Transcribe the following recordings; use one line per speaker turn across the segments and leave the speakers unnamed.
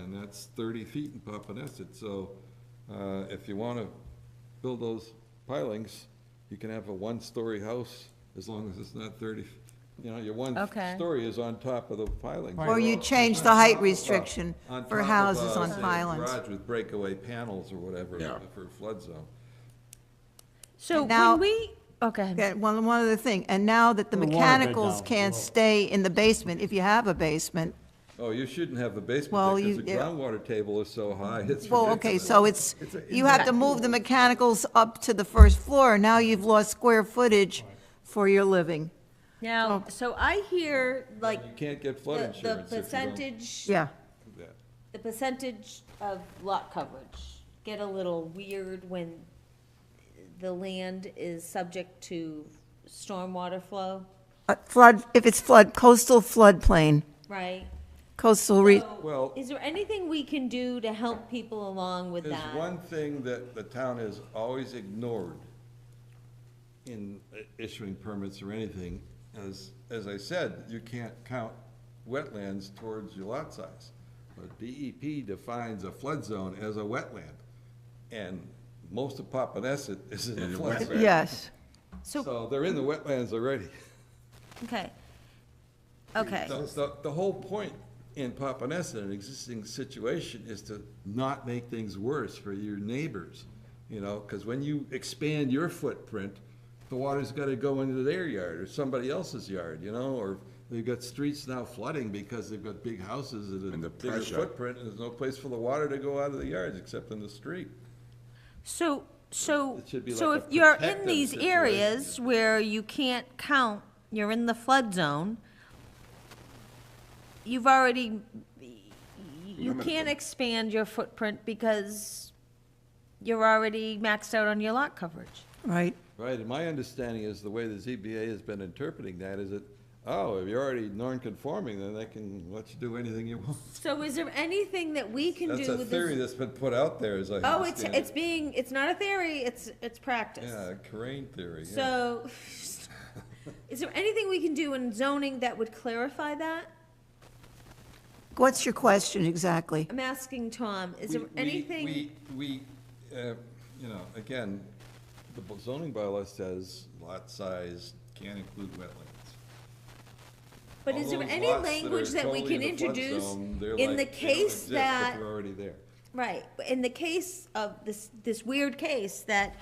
that's thirty feet in Papaneset, so, uh, if you wanna build those pilings, you can have a one-story house, as long as it's not thirty, you know, your one
Okay.
story is on top of the pilings.
Or you change the height restriction
On
for
top of,
houses
uh,
on
say, a
pylons.
Garage with breakaway panels or whatever
Yeah.
for flood zone.
So
Now-
when we, okay,
Okay, one, one other thing, and now that the
The water bed
mechanicals
down
can't
below.
stay in the basement, if you have a basement,
Oh, you shouldn't have a basement
Well,
because the
you- yeah.
groundwater table is so high, it's ridiculous.
well, okay, so it's, you have to move the mechanicals up to the first floor, now you've lost square footage for your living.
now, so I hear like
You can't get flood
the the
insurance if you don't do
percentage,
Yeah.
that.
the percentage of lot coverage get a little weird when the land is subject to stormwater flow,
Uh, Flood, if it's flood, coastal floodplain,
right?
coastal re,
So,
Well-
Is there anything we can do to help people along with
There's
that?
one thing that the town has always ignored in i- issuing permits or anything, as, as I said, you can't count wetlands towards your lot size. But DEP defines a flood zone as a wetland, and most of Papaneset is in a flood zone.
yes.
So they're in the wetlands already.
Okay. Okay.
The- The, the whole point in Papaneset, an existing situation, is to not make things worse for your neighbors, you know? Because when you expand your footprint, the water's gotta go into their yard or somebody else's yard, you know? Or they've got streets now flooding because they've got big houses and
And
a
the
bigger
pressure.
footprint, and there's no place for the water to go out of the yards except in the street.
So, so,
It should be
so
like
if
a
you're in
protective
these
situation.
areas where you can't count, you're in the flood zone, you've already, you can't expand your footprint because you're already maxed out on your lot coverage.
Right,
Right, and my understanding is the way the ZBA has been interpreting that is that, oh, if you're already non-conforming, then they can let you do anything you want.
So is there anything that we can do
That's a
with
theory that's
this?
been put out there, as I
Oh, it's,
understand
it's
it.
being, it's not a theory, it's, it's practice.
Yeah, Corain theory, yeah.
So, is there anything we can do in zoning that would clarify that?
what's your question exactly?
I'm asking Tom, is there
We- we-
anything,
We, we, uh, you know, again, the bu- zoning bylaw says lot size can't include wetlands.
but
All
is there
those
any
lots that are
language that we
totally
can
in the flood
introduce
zone, they're like,
in the
they don't
case
exist if
that,
They're already there.
right, in the case of this, this weird case that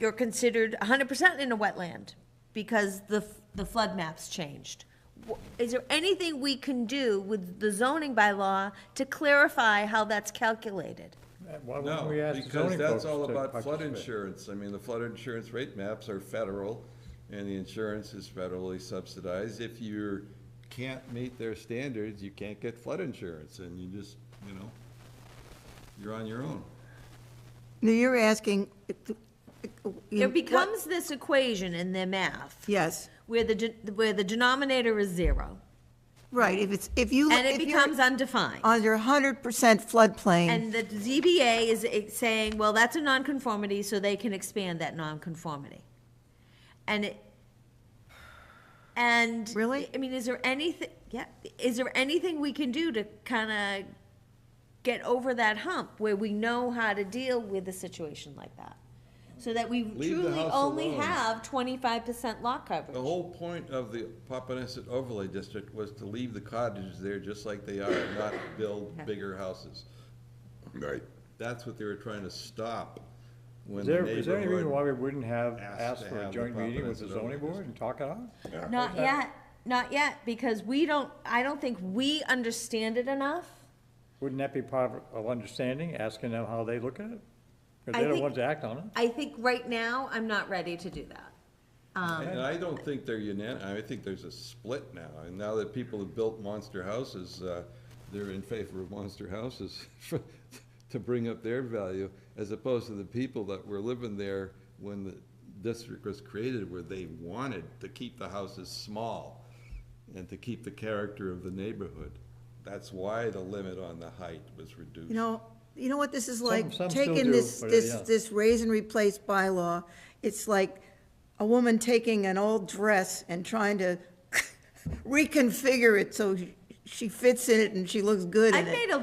you're considered hundred percent in a wetland because the, f- the flood maps changed? Wh- Is there anything we can do with the zoning bylaw to clarify how that's calculated?
Why wouldn't we
No,
ask the
because
zoning folks
that's
to
all about flood
participate?
insurance. I mean, the flood insurance rate maps are federal, and the insurance is federally subsidized. If you can't meet their standards, you can't get flood insurance, and you just, you know, you're on your own.
No, You're asking.
There becomes this equation in their math
Yes,
where the, de- where the denominator is zero
right, if it's, if you.
and it
if you're
becomes undefined.
Under hundred percent floodplain,
And the ZBA is eh, saying, well, that's a nonconformity, so they can expand that nonconformity. And it, and.
Really?
I mean, is there anything, yeah, is there anything we can do to kind of get over that hump where we know how to deal with a situation like that? So that we
the
truly
house
only
alone.
have twenty-five percent lot coverage?
The whole point of the Papaneset overlay district was to leave the cottages there just like they are, not build bigger houses.
Right.
That's what they were trying to stop when
Is
the
there, is there any reason why
neighborhood.
we wouldn't have
asked
asked
to
for
have
a
the
joint meeting with the
comprehensive
zoning
overlay
board and talk it out?
Not yet, not yet, because we don't, I don't think we understand it enough.
Wouldn't that be part of- of understanding, asking them how they look at it?
I
Because they're the
think-
ones that act on it.
I think right now, I'm not ready to do that.
Um,
And I don't think they're unan, I think there's a split now, and now that people have built monster houses, uh, they're in favor of monster houses to bring up their value, as opposed to the people that were living there when the district was created, where they wanted to keep the houses small and to keep the character of the neighborhood. That's why the limit on the height was reduced.
you know, you know what this is like?
some still
Taking
do,
this,
but,
this,
yeah.
this raise and replace bylaw, it's like a woman taking an old dress and trying to reconfigure it so she fits in it and she looks good in
I
it.
made a